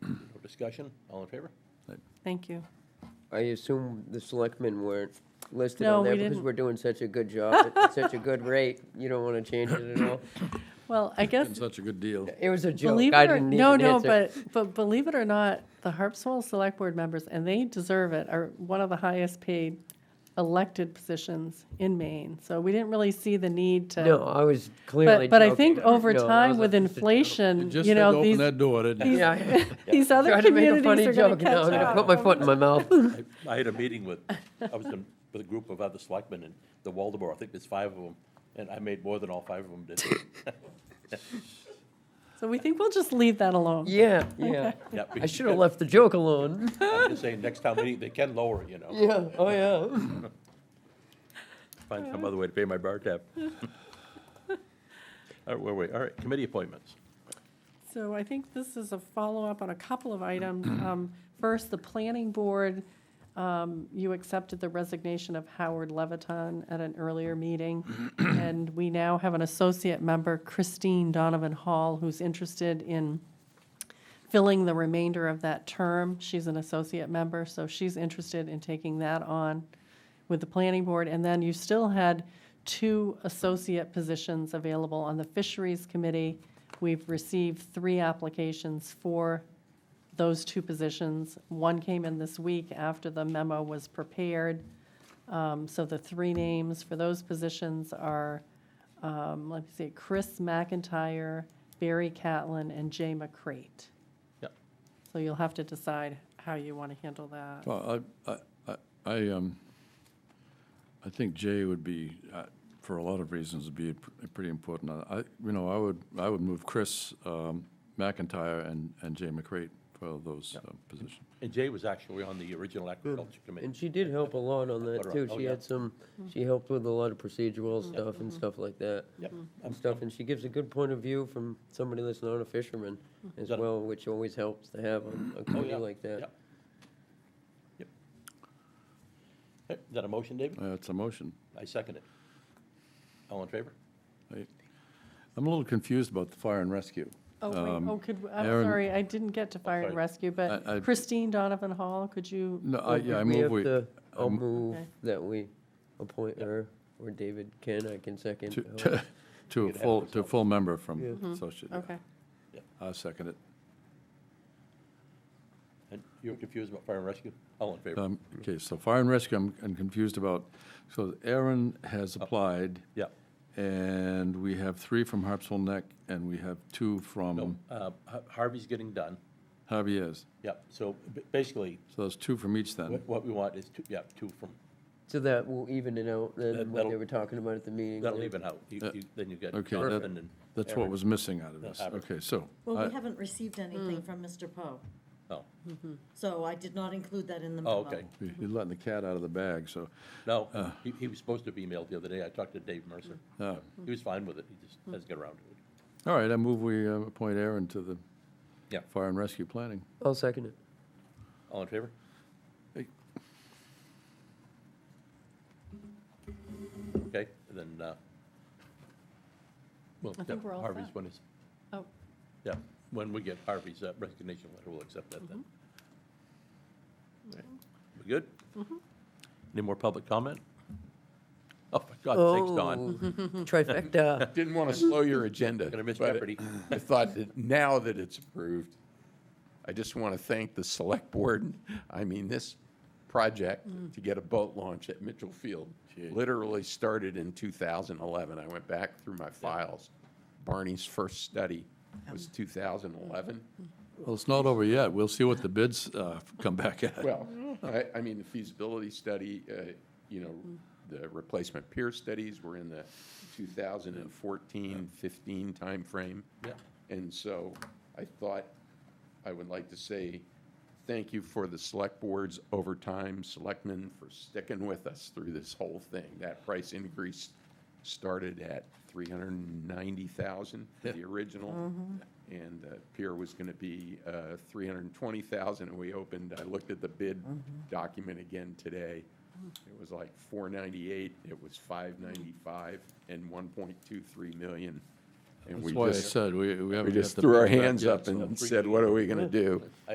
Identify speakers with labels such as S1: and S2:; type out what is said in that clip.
S1: Discussion, all in favor?
S2: Thank you.
S3: I assume the selectmen weren't listed
S2: No,
S3: on there
S2: we
S3: because
S2: didn't.
S3: we're doing such a good job, at such a good rate. You don't want to change it at all.
S2: Well, I guess,
S4: It's such a good deal.
S3: It was a joke.
S2: believe
S3: I
S2: it or,
S3: didn't
S2: no,
S3: even
S2: no,
S3: answer.
S2: but, but believe it or not, the Harpswell Select Board members, and they deserve it, are one of the highest paid elected positions in Maine. So we didn't really see the need
S3: No,
S2: to,
S3: I was clearly.
S2: uh, but, but I think
S3: joking.
S2: over
S3: No, that
S2: time
S3: was
S2: with
S3: a- just a joke.
S4: You
S2: inflation,
S4: just
S2: you
S4: had to
S2: know,
S4: open
S2: these,
S4: that door, didn't you?
S3: Yeah, I
S2: these other
S3: tried to make a
S2: communities
S3: funny
S2: are going
S3: joke.
S2: to
S3: Now I'm
S2: catch
S3: going to put
S2: up.
S3: my foot in my mouth.
S1: I- I had a meeting with, I was in, with a group of other selectmen in the Waldeboro, I think there's five of them, and I made more than all five of them did.
S2: So we think we'll just leave that alone.
S3: Yeah, yeah.
S1: Yeah,
S3: I should have left the joke alone.
S1: I'm just saying, next town meeting, they can lower it, you know,
S3: Yeah, oh, yeah.
S1: find some other way to pay my bar tab. All right, where were we? All right, committee appointments.
S2: So I think this is a follow-up on a couple of items. Um, First, the planning board, um, you accepted the resignation of Howard Leviton at an earlier meeting, and we now have an associate member, Christine Donovan Hall, who's interested in filling the remainder of that term. She's an associate member, so she's interested in taking that on with the planning board. And then you still had two associate positions available on the fisheries committee. We've received three applications for those two positions. One came in this week after the memo was prepared. Um, So the three names for those positions are, um, let me see, Chris McIntyre, Barry Catlin, and Jay McCrate.
S1: Yep.
S2: So you'll have to decide how you want to handle that.
S4: Well, I, I- I, I, um, I think Jay would be, uh, for a lot of reasons, would be pr- pretty important. uh, I, I- you know, I would, I would move Chris um, McIntyre and, and Jay McCrate for those uh, positions.
S1: And Jay was actually on the original agriculture
S3: And
S1: committee.
S3: she did help a lot on
S1: Put her
S3: that
S1: up.
S3: too.
S1: Oh,
S3: She
S1: yeah.
S3: had some, she helped with a lot of procedural
S2: Mm-hmm.
S3: stuff and stuff like that.
S1: Yep. Um,
S3: And stuff, and she gives a good point of view from somebody that's not a fisherman as
S1: Got it.
S3: well, which always helps to have on a committee
S1: Hmm. Oh, yeah.
S3: like that.
S1: Yep. Yep. Hey, Is that a motion, David?
S4: Uh, It's a motion.
S1: I second it. All in favor?
S4: I- I'm a little confused about the fire and rescue.
S2: Oh,
S4: Um,
S2: wait, oh, could, I'm
S4: Aaron-
S2: sorry, I didn't get to fire and
S1: sorry.
S2: rescue,
S4: I- I-
S2: but Christine Donovan Hall, could you?
S4: No,
S3: Well,
S4: I, Uh, yeah, I
S3: we
S4: move
S3: have
S4: we,
S3: to- I'll
S4: um,
S3: move
S2: Okay.
S3: that we appoint her, or David can, I can second. Oh,
S4: to-
S3: Helen.
S4: to, to a
S1: You'd have
S4: full, to a
S1: yourself.
S4: full member from
S3: Yeah.
S4: associate. yeah.
S2: Okay.
S4: Mm-hmm. I second it.
S1: And you're confused about fire and rescue? All in favor?
S4: Um, Okay, so fire and rescue, I'm I'm confused about, so Aaron has
S5: Oh.
S4: applied,
S1: Yeah.
S4: and we have three from Harpswell Neck, and we have two
S1: No,
S4: from
S1: uh, Har- Harvey's getting done.
S4: Javier's.
S1: Yep, so b- basically,
S4: So there's two from each then.
S1: what what we want is two, yeah, two from,
S3: So that will even it out,
S1: That-
S3: then what
S1: that'll-
S3: they were talking about at the meeting.
S1: that'll
S3: yeah.
S1: even out. You-
S4: Uh,
S1: you- Then you get
S4: okay,
S1: Jonathan and.
S4: That's what
S1: Aaron.
S4: was missing out of this.
S1: Abbott.
S4: Okay, so,
S6: Well,
S1: Uh,
S4: I-
S6: we haven't received
S1: hmm.
S6: anything from Mr. Poe,
S1: Oh,
S6: so I did not include that in the memo.
S1: oh, okay.
S4: you're letting the cat out of the bag, so,
S1: No, he, he was supposed to be emailed the other day. I talked to Dave Mercer.
S4: uh,
S1: He was fine with it. He just hasn't got around to it.
S4: all right, I move we uh, appoint Aaron to the
S1: Yeah.
S4: fire and rescue planning.
S3: I'll second it.
S1: All in favor?
S4: Hey.
S1: Okay, then, uh, well,
S2: I think
S1: yeah,
S2: we're all
S1: Harvey's
S2: set.
S1: one is,
S2: Oh,
S1: yeah, when we get Harvey's uh, resignation letter, we'll accept that then. Right. We good? Any more public comment? Oh, for God's sakes, Don,
S3: Trifecta.
S5: Didn't want to slow your agenda.
S1: Gonna miss
S5: but
S1: Jeopardy.
S5: I thought that now that it's approved, I just want to thank the select board. I mean, this project to get a boat launch at Mitchell Field literally started in 2011. I went back through my files. Barney's first study was
S1: Um.
S5: 2011.
S4: Well, it's not over yet. We'll see what the bids uh, come back at.
S5: Well, I, I mean, the feasibility study, uh, you know, the replacement peer studies were in the 2014, 15 timeframe.
S1: Yeah.
S5: And so I thought I would like to say thank you for the select boards over time, selectmen for sticking with us through this whole thing. That price increase started at 390,000 for the original. And uh, pier was going to be uh, 320,000 and we opened, I looked at the bid document again today. It was like 498, it was 595 and 1.23 million. And
S4: That's
S5: we
S4: why I
S5: just-
S4: said, we, we haven't. got
S5: we just
S4: the
S5: threw our
S4: bids back
S5: hands
S4: yet,
S5: up
S4: so-
S5: and said, what are we going to do?